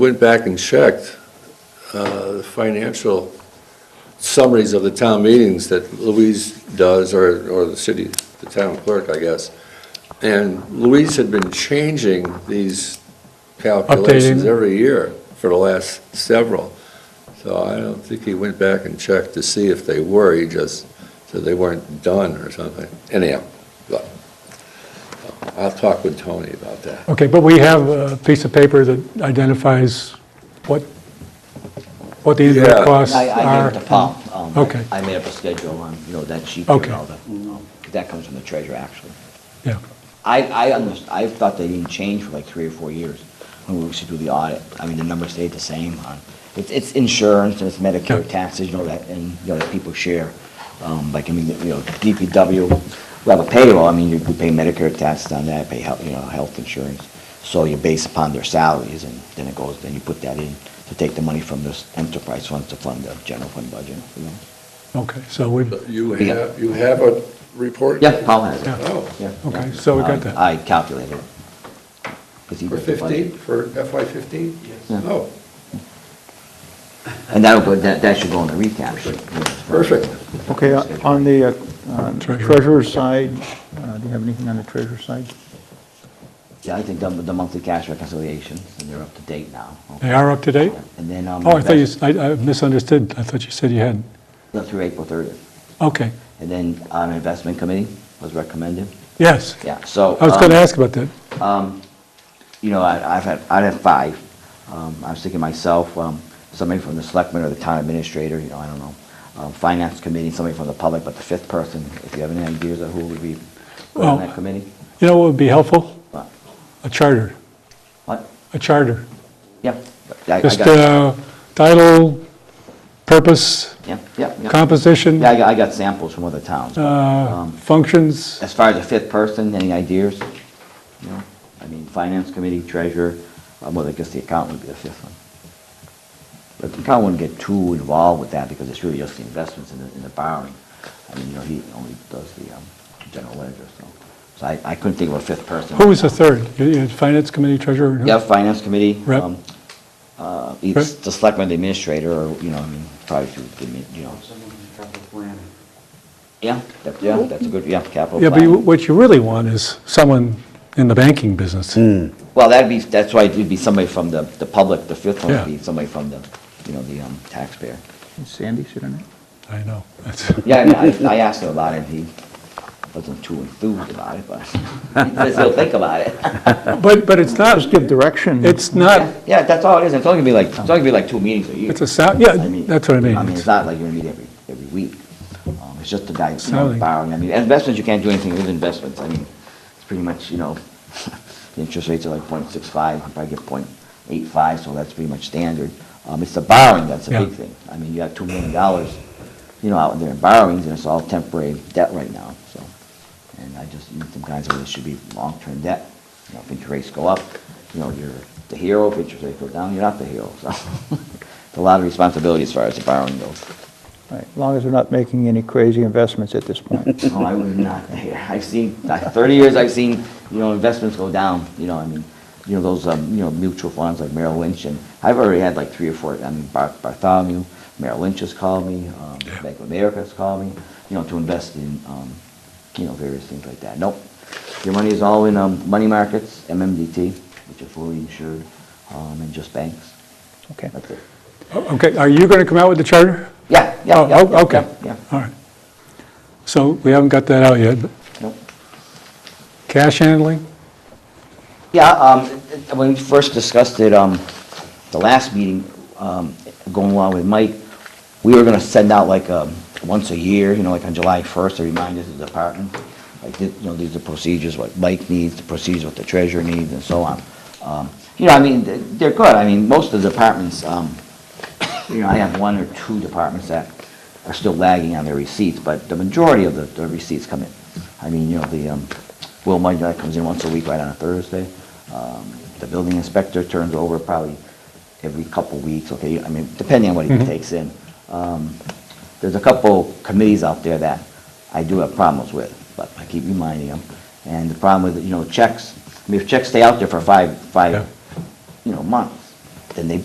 went back and checked uh, the financial summaries of the town meetings that Louise does, or, or the city, the town clerk, I guess. And Louise had been changing these calculations Updating. every year for the last several. So I don't think he went back and checked to see if they were, he just said they weren't done or something. Anyhow, but, uh, I'll talk with Tony about that. Okay, but we have a piece of paper that identifies what, what the Yeah. indirect costs I, I are. gave it to Paul. Um, Okay. I made up a schedule on, you know, that sheet there and Okay. all that. That comes from the treasurer, actually. Yeah, I, I, under- I thought they didn't change for like three or four years when we used to do the audit. I mean, the numbers stayed the same. on- It's, it's insurance and it's Medicare Yeah. taxes, you know, that, and, you know, that people share. Um, like, I mean, you know, DPW, we have a payroll, I mean, you you pay Medicare taxes on that, pay health, you know, health insurance. So you base upon their salaries and then it goes, then you put that in to take the money from those enterprise funds to fund the general fund budget, you know? okay, so we, But You have, you have a report? Yeah, Paul has it. Yeah. Oh, Yeah, Okay, yeah. so we got Um, that. I calculated it. 'Cause he for wrote the budget. 15, for FY 15? Yeah. Oh, And that'll go, that, that should go in the recap sheet. perfect. Okay, uh, on the uh, uh, Treasurer. treasurer's side, uh, do you have anything on the treasurer's side? Yeah, I think the, the monthly cash reconciliations, and they're up to date now. they are up to date? And then, um. Oh, I thought you, s- I I misunderstood, I thought you said you hadn't. Up through April thirtieth. Okay, And then, um, investment committee was recommended, yes. yeah, so. I was um, going to ask about that. you know, I- I've had, I'd have five. Um, I was thinking myself, um, somebody from the selectman or the town administrator, you know, I don't know, um, finance committee, somebody from the public, but the fifth person, if you have any ideas of who would be on Well- that committee? You know what would be helpful? What? A charter, What? a charter. Yeah. I- I Just got- uh, title, purpose, Yeah, yeah, yeah. composition, Yeah, um, I got, I got samples from other towns. uh, functions. As far as the fifth person, any ideas? No? I mean, finance committee, treasurer, um, well, I guess the accountant would be the fifth one. But the accountant wouldn't get too involved with that because it's really just the investments and the, and the borrowing. I mean, you know, he only does the, um, general ledger, so. So I, I couldn't think of a fifth person. Who was the third? You- you had Finance committee treasurer? and who? Yeah, finance committee. Rep. um, Uh, it's Rep. the selectman, the administrator, or, you know, I mean, probably through the, admin, you know. Someone from capital planning. Yeah, that, yeah, that's a good, yeah, capital Yeah, but you- planning. what you really want is someone in the banking business. Hmm. Well, that'd be, that's why it'd be somebody from the, the public, the fifth one Yeah. would be somebody from the, you know, the um, taxpayer. Is Sandy sitting there? I know. That's- Yeah, I mean, I, I asked him about it, he wasn't too enthused about it, but he says he'll think about it. But, but it's not, Just give direction. it's not, Yeah, that's all it is, it's only gonna be like, it's only gonna be like two meetings a year. it's a sound, yeah, I mean, that's what I mean. I mean, It's- it's not like you're gonna meet every, every week. Um, It's just the guy, you know, Sounding. borrowing, I mean, investments, you can't do anything with investments, I mean, it's pretty much, you know, the interest rates are like point six five, I probably get point eight five, so that's pretty much standard. Um, it's the borrowing that's the Yeah. big thing. I mean, you got two million dollars, you know, out there in borrowings, and it's all temporary debt right now, so. And I just, need some guys, it should be long-term debt. You know, if interest rates go up, you know, you're the hero, if interest rates go down, you're not the hero, so. It's a lot of responsibility as far as the borrowing goes. Right, As long as they're not making any crazy investments at this point. No, Oh, I would not there. I've seen, like, 30 years, I've seen, you know, investments go down, you know, I mean, you know, those, um, you know, mutual funds like Merrill Lynch, and I've already had like three or four, I mean, Bar- Bartholomew, Merrill Lynch has called me, um, Bank of America has called me, you know, to invest in, um, you know, various things like that. Nope. Your money is all in, um, money markets, MMDT, which are fully insured, um, and just banks. Okay. That's it. Okay, are you going to come out with the charter? Yeah, yeah, Oh, yeah, yeah, okay, yeah, all right. So we haven't got that out yet. but yeah. Nope. Cash handling? Yeah, um, when we first discussed it, um, the last meeting, um, going along with Mike, we were gonna send out like, um, once a year, you know, like on July first, a reminder to the department, like, thi- you know, these are procedures, what Mike needs, the procedures what the treasurer needs, and so on. Um, You know, I mean, th- they're good, I mean, most of the departments, um, you know, I have one or two departments that are still lagging on their receipts, but the majority of the, the receipts come in. I mean, you know, the, um, Will Mudge, that comes in once a week, right on a Thursday. Um, the building inspector turns over probably every couple weeks, okay, I mean, depending on what he takes in. Um, there's a couple committees out there that I do have problems with, but I keep reminding them. And the problem with, you know, checks, I mean, if checks stay out there for five, Yeah. five, you know, months, then they